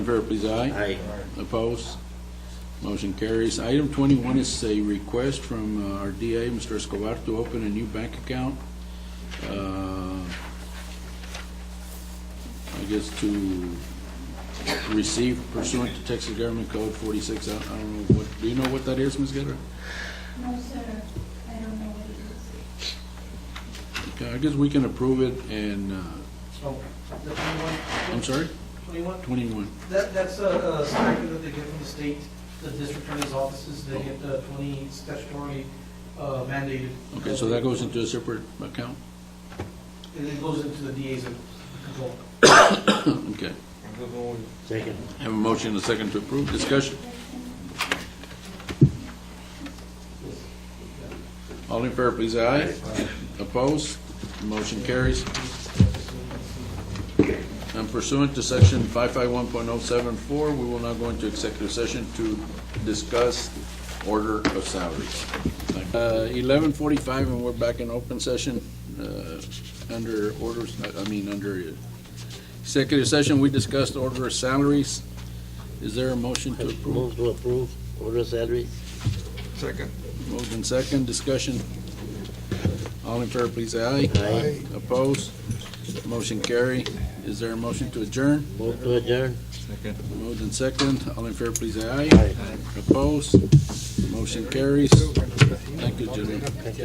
In favor, please, aye. Aye. Opposed? Motion carries. Item 21 is a request from uh, our DA, Mr. Escobar, to open a new bank account. uh, I guess to receive pursuant to Texas Government Code 46. I I don't know what, do you know what that is, Ms. Guerra? No, sir, I don't know what it is. Okay, I guess we can approve it and, uh, So, the twenty-one, I'm sorry, twenty-one, 21. that, that's a, a stipend that they get from the state, the district attorney's offices, they get the twenty statutory uh, mandated. Okay, so that goes into a separate account? And it goes into the DA's control. Okay. Second. Have a motion and a second to approve. Discussion. All in favor, please, aye. Opposed? Motion carries. And pursuant to section 551.074, we will now go into executive session to discuss order of salaries. Uh, 11:45, and we're back in open session uh, under orders, I- I mean, under uh, executive session, we discussed order of salaries. Is there a motion to approve? Move to approve order salaries. Moved in second, discussion. All in favor, please say aye. Aye. Opposed? Motion carry. Is there a motion to adjourn? Move to adjourn. Moved in second, all in favor, please say aye. Aye. Opposed? Motion carries. Thank you, gentlemen.